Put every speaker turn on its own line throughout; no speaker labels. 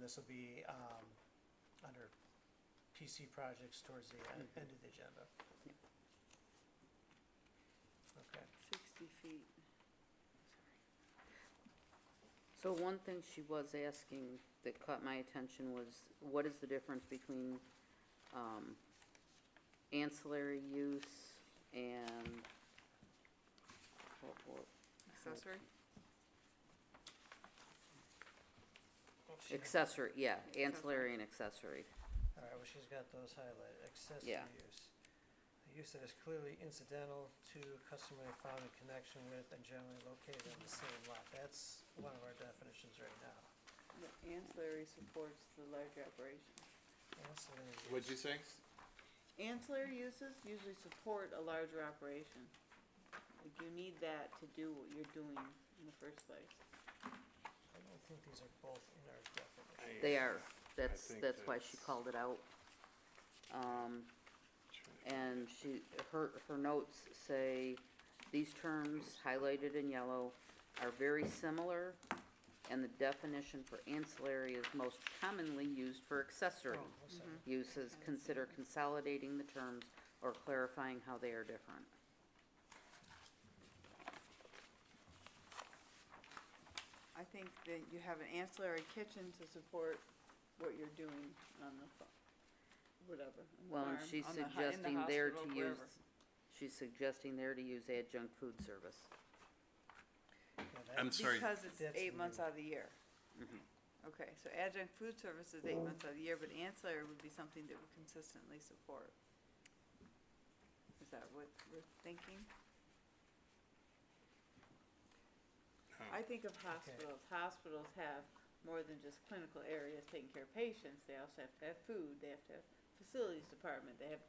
this will be, um, under PC projects towards the end, end of the agenda. Okay,
Sixty feet. So one thing she was asking that caught my attention was, what is the difference between, um, ancillary use and, oh, what, what,
Accessory?
accessory, yeah, ancillary and accessory.
alright, well, she's got those highlighted, accessory
Yeah.
use. A use that is clearly incidental to customarily found in connection with and generally located on the same lot, that's one of our definitions right now.
The ancillary supports the larger operation.
Ancillary
What'd you
use.
say?
Ancillary uses usually support a larger operation. Like you need that to do what you're doing in the first place.
I don't think these are both in our definition.
They are, that's,
think
that's why she
that's-
called it out. Um, and she, her, her notes say, these terms highlighted in yellow are very similar, and the definition for ancillary is most commonly used for accessory
Oh, I'm
Mm-hmm.
sorry.
uses. Consider consolidating the terms or clarifying how they are different.
I think that you have an ancillary kitchen to support what you're doing on the, fa- whatever, on the
Well, and
farm,
she's
on the hu- in the
suggesting there to
hospital,
use,
wherever.
she's suggesting there to use adjunct food service.
Yeah, that-
I'm sorry, Mm-hmm.
Because it's
That's
eight months
new.
out of the year.
Mhm.
Okay, so adjunct food service is eight months out of the year, but ancillary would be something that would consistently support. Is that what we're thinking? I think of hospitals, hospitals have more than just clinical areas taking care of patients, they also have to have food, they have to have facilities department, they have,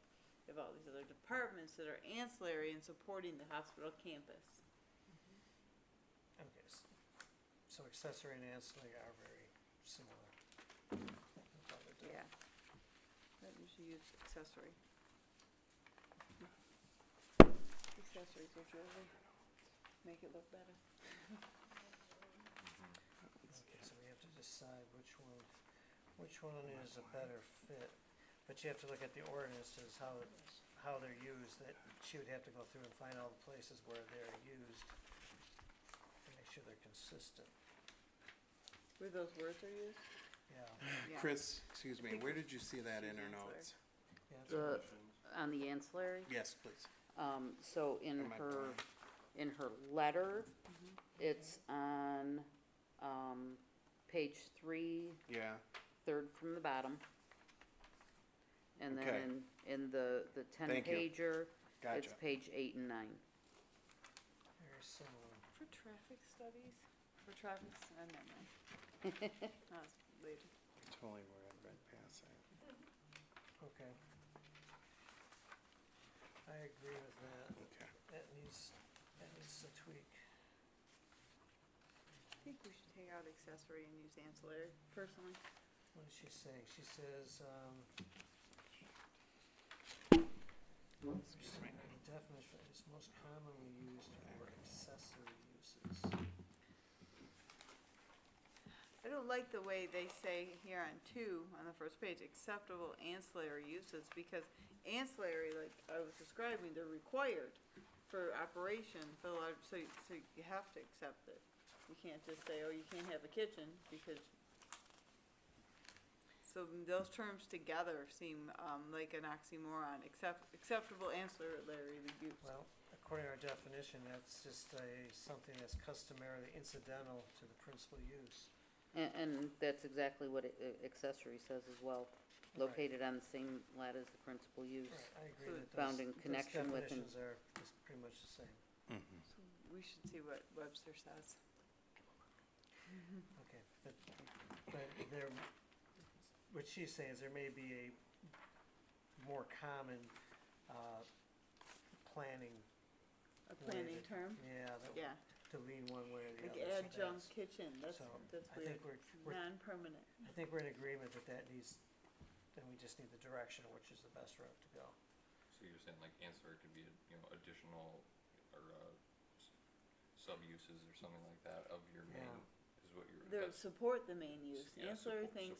they have all these other departments that are ancillary in supporting the hospital campus.
Okay, s- so accessory and ancillary are very similar. No problem with that.
Yeah. That you should use accessory. Accessories are jewelry, make it look better.
Okay, so we have to decide which one, which one is a better fit. But you have to look at the ordinances, how, it- how they're used, that she would have to go through and find all the places where they're used and make sure they're consistent,
Where those words are used?
yeah.
Yeah.
Chris, excuse me,
think
where did you see that in her
Ancillary.
notes?
yeah, that's-
The, on the ancillary?
Yes, please.
Um, so in
Am I
her, in
blind?
her letter, it's on, um, page three,
Yeah,
third from the bottom. And
Okay.
then in, in the, the ten
Thank you.
pager,
gotcha.
it's page eight and nine.
Very similar.
For traffic studies? For traffic, stu- I don't know. That's later.
Totally where I read past that.
Okay. I agree with that.
Okay.
That needs, that needs a tweak.
I think we should take out accessory and use ancillary personally.
What is she saying? She says, um,
Excuse me.
the definition is most commonly used for accessory uses.
I don't like the way they say here on two, on the first page, acceptable ancillary uses, because ancillary, like I was describing, they're required for operation, for large, so, so you have to accept it. You can't just say, oh, you can't have a kitchen, because. So those terms together seem, um, like an oxymoron, accept, acceptable ancillary use.
Well, according to our definition, that's just a, something that's customarily incidental to the principal use.
And, and that's exactly what it- uh, accessory says as well,
Right.
located on the same lat as the principal use.
Right, I
So
agree that those,
found in
those
connection with an-
definitions are is pretty much the same.
Mm-hmm.
So We should see what Webster says.
Okay, but, but there, what she's saying is there may be a more common, uh, planning,
A
Where is
planning
it?
term,
yeah, that
yeah.
to lean one way or the
Like
other. so
adjunct
that's-
kitchen, that's,
So,
that's
I think
weird,
we're, we're,
non-permanent.
I think we're in agreement that that needs, then we just need the direction, of which is the best route to go.
So you're saying like ancillary could be, you know, additional or uh, s- sub-uses or something like that of your main, is what you're,
They
that's
support the main use,
yeah,
ancillary
support-
things